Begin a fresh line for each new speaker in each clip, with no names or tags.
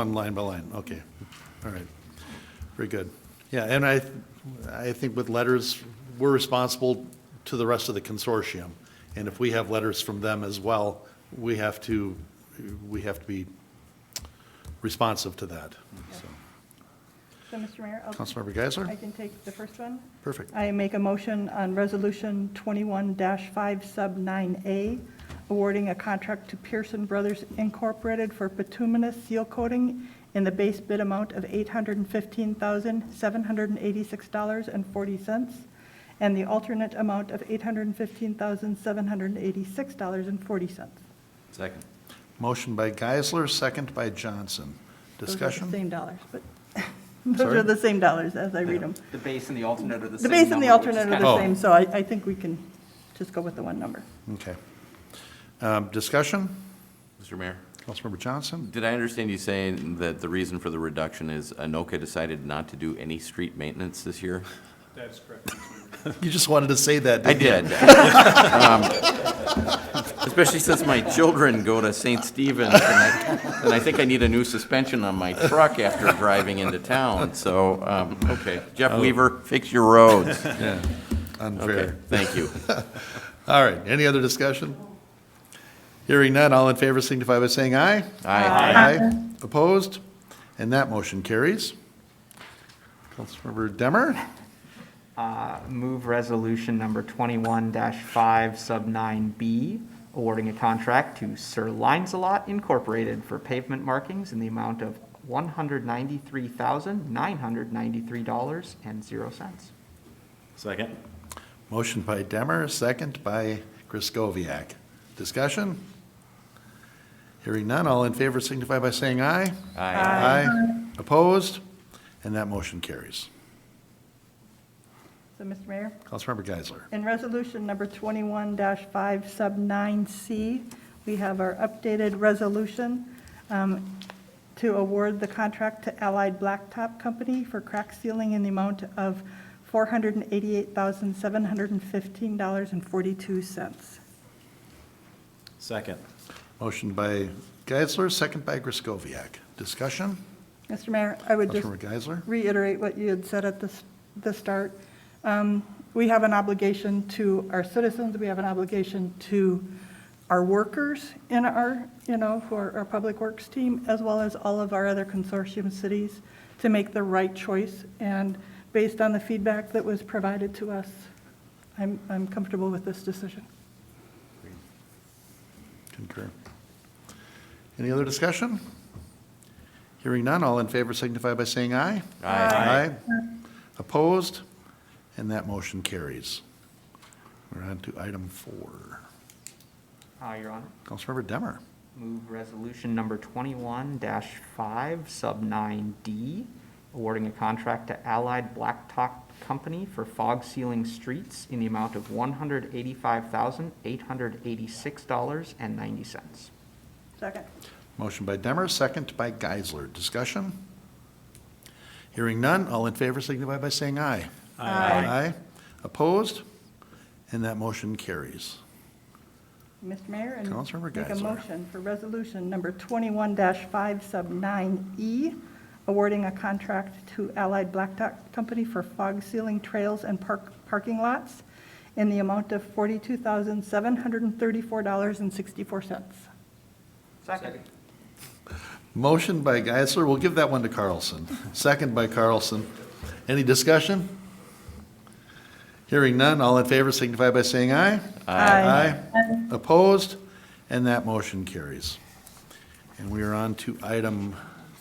On line by line, okay, all right, very good. Yeah, and I, I think with letters, we're responsible to the rest of the consortium, and if we have letters from them as well, we have to, we have to be responsive to that, so.
So, Mr. Mayor? I'll-
Councilmember Geisler?
I can take the first one.
Perfect.
I make a motion on Resolution 21-5 Sub 9A, awarding a contract to Pearson Brothers Incorporated for bituminous seal coating in the base bid amount of $815,786.40 and the alternate amount of $815,786.40.
Second.
Motion by Geisler, second by Johnson.
Those are the
Discussion?
Same dollars, but those
Sorry?
are the same dollars as I read them.
The base and the alternate are the
The
same.
base and the
number, which is
alternate
kind
are
of-
Oh.
the same, so I, I think we can just go with the one number.
Okay. Um, Discussion?
Mr. Mayor,
Councilmember Johnson?
did I understand you saying that the reason for the reduction is Anoka decided not to do any street maintenance this year?
You just wanted to say that,
I
didn't you?
did. Um, Especially since my children go to St. Stephen's, and I, and I think I need a new suspension on my truck after driving into town, so, um, okay. Jeff Weaver, fix your roads. Okay,
Unfair.
thank you.
All right, any other discussion? Hearing none, all in favor signify by saying aye.
Aye.
Aye. Opposed? And that motion carries. Councilmember Demmer?
Uh, Move resolution number 21-5 sub 9B, awarding a contract to Sir Lancelot Incorporated for pavement markings in the amount of $193,993.00.
Second.
Motion by Demmer, second by Griscoviac. Discussion? Hearing none, all in favor signify by saying aye.
Aye.
Aye. Opposed? And that motion carries.
So, Mr. Mayor,
Councilmember Geisler.
in resolution number 21-5 sub 9C, we have our updated resolution um, to award the contract to Allied Blacktop Company for crack sealing in the amount of $488,715.42.
Second.
Motion by Geisler, second by Griscoviac. Discussion?
Mr. Mayor, I would just
Councilmember Geisler?
reiterate what you had said at the, s- the start. Um, We have an obligation to our citizens, we have an obligation to our workers in our, you know, for our Public Works team, as well as all of our other consortium cities, to make the right choice. And based on the feedback that was provided to us, I'm, I'm comfortable with this decision.
Concur. Any other discussion? Hearing none, all in favor signify by saying aye.
Aye.
Opposed? And that motion carries. We're on to item four.
Uh, Your Honor.
Councilmember Demmer.
Move resolution number twenty-one five, sub nine D, awarding a contract to Allied Blacktop Company for fog sealing streets in the amount of one hundred eighty-five thousand, eight hundred eighty-six dollars and ninety cents.
Second.
Motion by Demmer, second by Geisler. Discussion? Hearing none, all in favor signify by saying aye. Aye. Opposed? And that motion carries.
Mr. Mayor? and
Councilmember
Make a
Geisler.
motion for resolution number 21-5 sub 9E, awarding a contract to Allied Blacktop Company for fog sealing trails and park, parking lots in the amount of $42,734.64.
Second.
Motion by Geisler, we'll give that one to Carlson. Second by Carlson. Any discussion? Hearing none, all in favor signify by saying aye.
Aye.
Aye. Opposed? And that motion carries. And we are on to item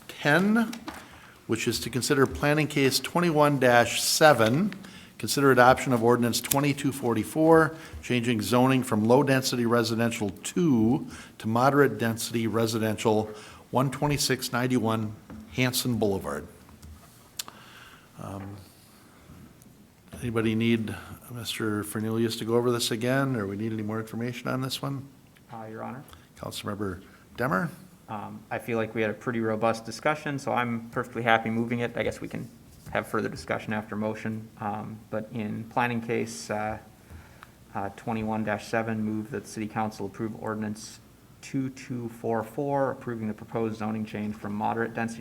10, which is to consider planning case 21-7, consider adoption of ordinance 2244, changing zoning from low-density residential 2 to moderate-density residential 12691 Hanson Boulevard. Um, Anybody need Mr. Fernelius to go over this again, or we need any more information on this one?
Uh, Your Honor.
Councilmember Demmer?
Um, I feel like we had a pretty robust discussion, so I'm perfectly happy moving it. I guess we can have further discussion after motion. Um, But in planning case uh, uh, 21-7, move that the city council approve ordinance 2244, approving the proposed zoning change from moderate density